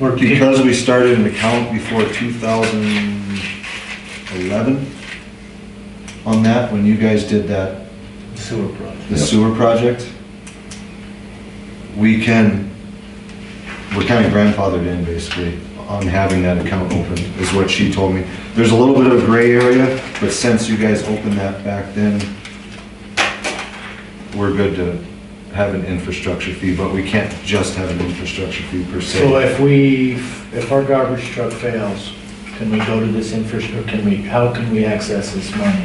Or Because we started an account before 2011 on that, when you guys did that, Sewer project. the sewer project, we can, we're kind of grandfathered in basically on having that account open, is what she told me. There's a little bit of gray area, but since you guys opened that back then, we're good to have an infrastructure fee, but we can't just have an infrastructure fee per se. So if we, if our garbage truck fails, can we go to this infrastructure, can we, how can we access this money?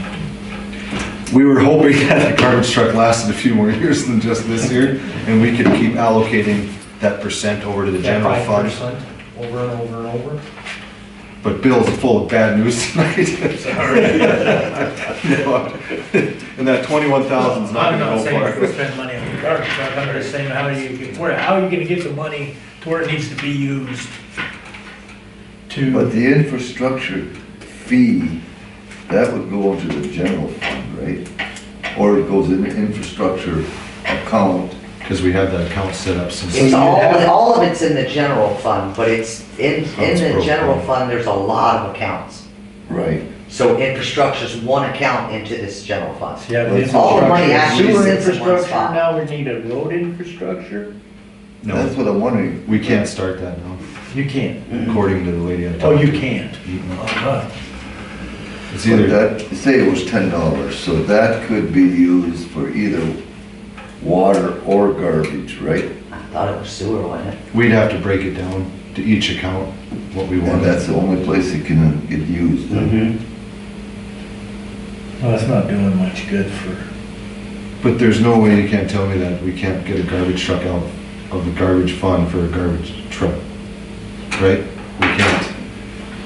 We were hoping that the garbage truck lasted a few more years than just this year, and we could keep allocating that percent over to the general That fund. 5% Over and over and over? But Bill's full of bad news tonight. No, And that twenty-one thousand's not I'm gonna not saying go go far. spend money on the garbage truck, I'm just saying how you, get- where, how are you gonna get the money to where it needs to be used? But To, the infrastructure fee, that would go into the general fund, right? Or it goes in the infrastructure account. Cause we had that account set up since, It's all, all of it's in the general fund, but it's, in, in the general fund, there's a lot of accounts. Right. So infrastructure's one account into this general fund. Yeah, but it's all money actually Sewer sits in one infrastructure, spot. now we need a road infrastructure? That's no, what I'm wondering. we can't start that now, You can't. according to the lady I talked to. Oh, you can't. Mm-mm. Alright. It's But either, that, say it was ten dollars, so that could be used for either water or garbage, right? I thought it was sewer, wasn't it? we'd have to break it down to each account, what we And wanted. that's the only place it can get used. Mm-hmm. Well, that's not doing much good for. But there's no way you can't tell me that we can't get a garbage truck out of the garbage fund for a garbage truck, right? We can't.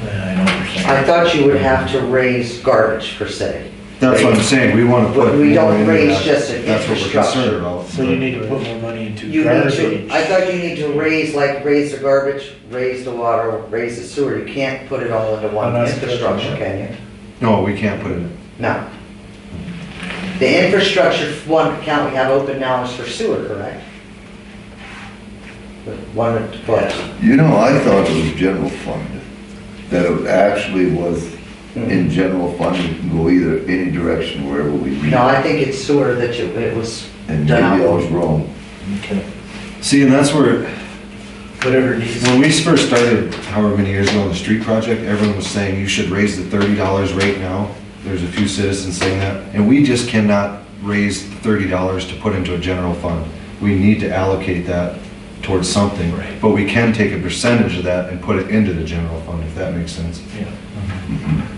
I know what you're I saying. thought you would have to raise garbage per se. That's what I'm saying, we wanna put. But we don't more into raise that. just an That's what we're concerned infrastructure. about. So you but- need to put more money into You need to, garbage. I thought you need to raise, like, raise the garbage, raise the water, raise the sewer, you can't put it all into one Oh, that's good. infrastructure, can you? No, we can't put it in. No. The infrastructure one account we have open now is for sewer, correct? The One at the close. You know, I thought it was general fund, that it actually was Hmm. Mm-hmm. in general fund, it can go either, any direction, wherever we need. No, I think it's sewer that you, it was And maybe I done. was wrong. Okay. See, and that's where, Whatever it needs. when we first started, however many years ago on the street project, everyone was saying you should raise the thirty dollars rate now. There's a few citizens saying that, and we just cannot raise the thirty dollars to put into a general fund. We need to allocate that towards something. Right. But we can take a percentage of that and put it into the general fund, if that makes sense. Yeah.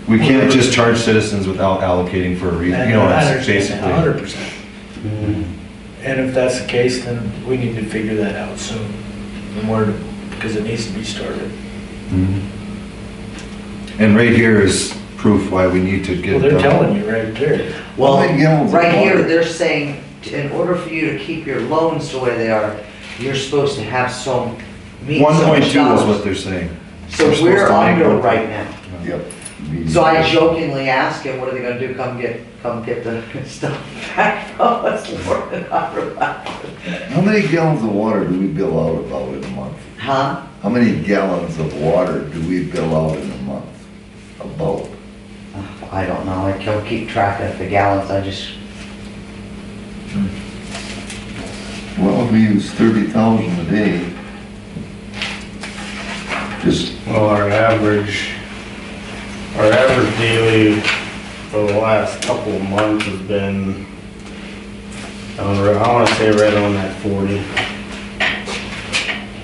We can't just charge citizens without allocating for a reason, you know, that's basically. Hundred percent. Hmm. And if that's the case, then we need to figure that out soon, and where, to- because it needs to be started. Mhm. Mm-hmm. And right here is proof why we need to get. Well, it they're done. telling you right there. Well, How many gallons of right here, water? they're saying, t- in order for you to keep your loans the way they are, you're supposed to have some, meet One so point much two is what dollars. they're saying. So we're supposed we're to make under one. right now. Yep. So I jokingly asked him, what are they gonna do, come get, come get the stuff back from us, Lord, and I wrote, How many gallons of water do we bill out about in a month? Huh? How many gallons of water do we bill out in a month? About? I don't know, I don't keep track of the gallons, I just, Well, if we use thirty thousand a day. Just, Well, our average, our average daily for the last couple of months has been, I don't know, I wanna say right on that forty.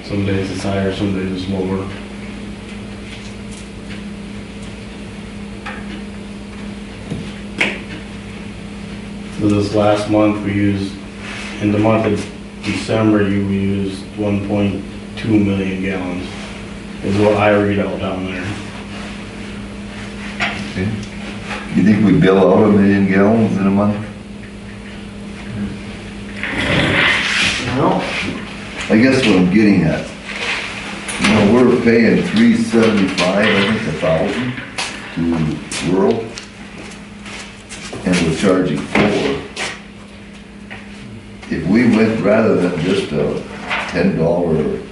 Some days it's higher, some days it's lower. So this last month, we used, in the month of December, you we used one point two million gallons is what I read out down there. you think we bill out a million gallons in a month? no, I guess what I'm getting at, you know, we're paying three seventy-five, I think, a thousand to rural. And we're charging four. If we went rather than just a ten dollar